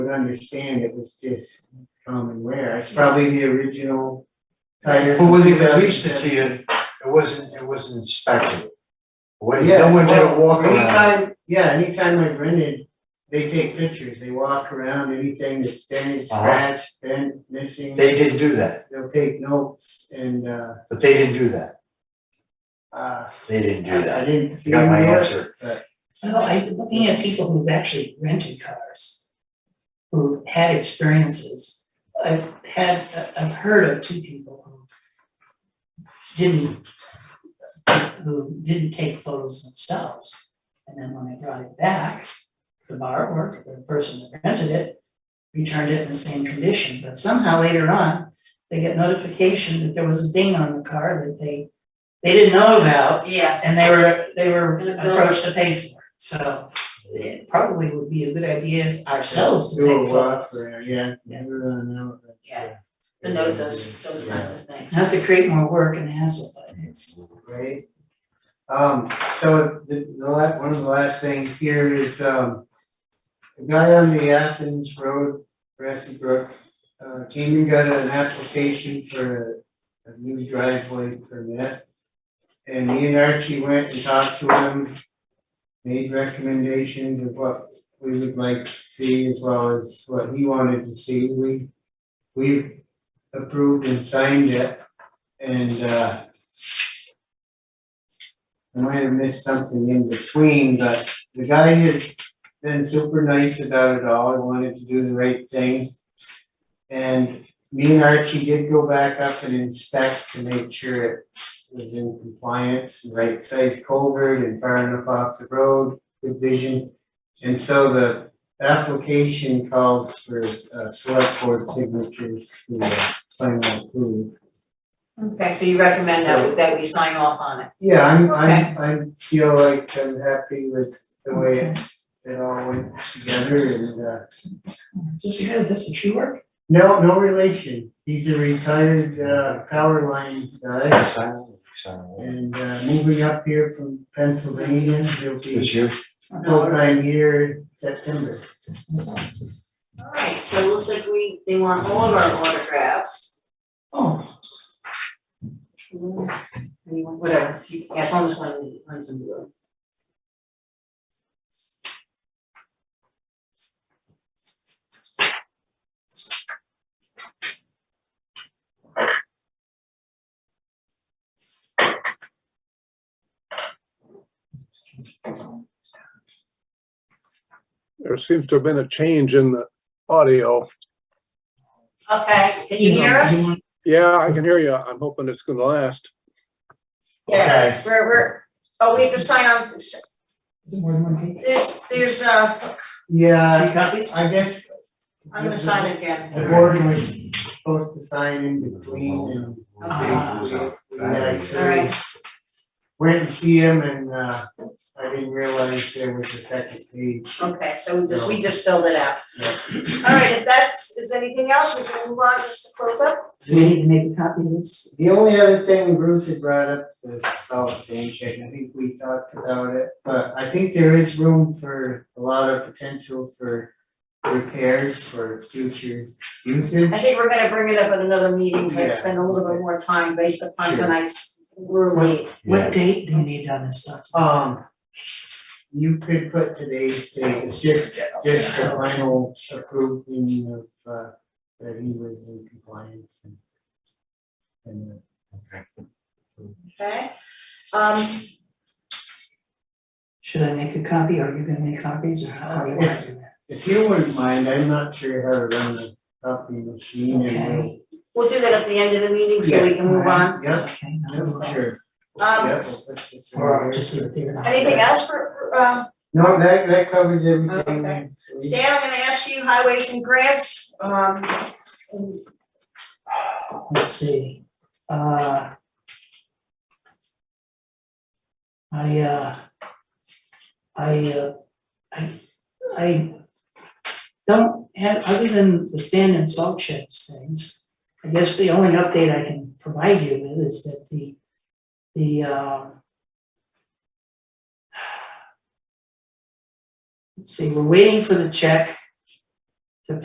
understand it was just common wear, it's probably the original tire. But when they from released it to 2007. you, it wasn't, it wasn't inspected. When, Yeah, no one well, had a walk around. Anytime, yeah, anytime I rented, they take pictures, they walk around, anything that's damaged, Uh-huh. scratched, bent, missing, They didn't do that, they'll take notes and uh but they didn't do that. uh. They didn't do I that. didn't You see got my any of it. answer. Well, I, looking at people who've actually rented cars, who've had experiences, I've had, I've heard of two people who didn't, who didn't take photos themselves, and then when they brought it back, the borrower, the person that rented it, returned it in the same condition, but somehow later on, they get notification that there was a ding on the car that they, they didn't know about, Yeah, and they were, they were And a bill. approached to pay for it, so it probably would be a good idea ourselves to Do pay a for walk it. around, yeah, Yeah. everyone know that. Yeah. to know those, those kinds of things. Not to create more work and hassle, but it's, Right? Um, so the, the last, one of the last things here is, um, the guy on the Athens Road, Grassy Brook, uh, came and got an application for a, a new driveway permit. And me and Archie went and talked to him, made recommendations of what we would like to see as well as what he wanted to see. We, we approved and signed it and, uh, I might have missed something in between, but the guy has been super nice about it all, I wanted to do the right thing. And me and Archie did go back up and inspect to make sure it was in compliance, right size culvert and far enough off the road, good vision. And so the application calls for uh select board signatures to uh, final approval. Okay, so you recommend So- that, that we sign off on it? Yeah, I'm Okay. I'm I'm feel like I'm happy with the way it it all went together and uh just good, that's the true work. no, no relation. He's a retired uh power line guy Sign it, sign it. and uh moving up here from Pennsylvania, he'll be This year, full time here September. Alright, so it looks like we, they want all of our autographs. Oh, Anyone, Mm-hmm. whatever, yeah, as long as one, one's in blue. There seems to have been a change in the audio. Okay, can you hear us? Yeah, I can hear you. I'm hoping it's gonna last. Yeah, we're, we're, oh, we have to sign on, is it more than one page? there's, there's, uh, Yeah, Three copies? I guess I'm gonna sign again. the board was supposed to sign in between and Uh, Okay. we we actually Alright. went and see him and uh I didn't realize there was a second page. Okay, so we just, we just filled it out. Yeah. Alright, if that's, is anything else, we can move on just to close up? Do we need to make a copy of this? The only other thing Bruce had brought up, the salt sand shed, and I think we talked about it, but I think there is room for a lot of potential for repairs for future usage. I think we're gonna bring it up at another meeting, so Yeah. I'd spend a little bit more time based upon Sure. tonight's ruling. What yeah, date do you need on this stuff? Um, you could put today's date, it's just, just the final approving of, uh, that he was in compliance and. And, uh, Okay, um, Should I make a copy, or are you gonna make copies, or how are you want to do that? if you wouldn't mind, I'm not sure how to run the copy machine and Okay. we'll do that at the end of the meeting so we can move on. we'll, yep, Okay, no, no, yep, no. sure. Yep, Um, we'll put this in Or there. just leave it there. and I'll- Anything else for, for, um, No, that, that covers everything. Okay. We- Stan, I'm gonna ask you highways and grants, um, and let's see, uh. I, uh. I, uh, I, I don't have, other than the sand and salt sheds things, I guess the only update I can provide you with is that the, the, uh. Let's see, we're waiting for the check